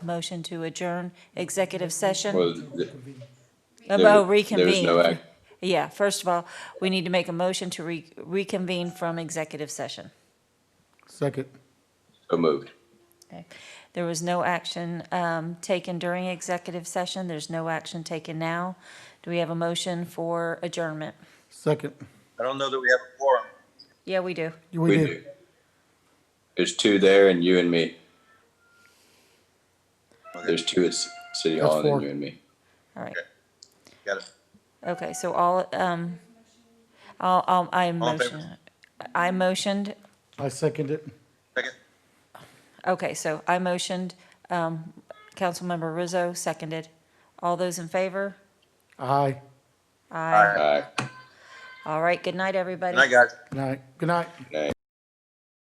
Motion to adjourn executive session. Well, th- About there- there is reconvene. no act. Yeah, first of all, we need to make a motion to re- reconvene from executive session. Second. So moved. Okay. There was no action um, taken during executive session. There's no action taken now. Do we have a motion for adjournment? Second. I don't know that we have a quorum. Yeah, we do. We do. did. There's two there and you and me. There's two at C- City That's Hall and four. then you and me. All right. Got it. Okay, so all, um, I'll, I'll, I All in favor? motion. I motioned, I second it. Second? okay, so I motioned, um, Councilmember Rizzo seconded. All those in favor? Aye. Aye. Aye. All right, good night, everybody. Good night, guys. Good night. Good night. Nay.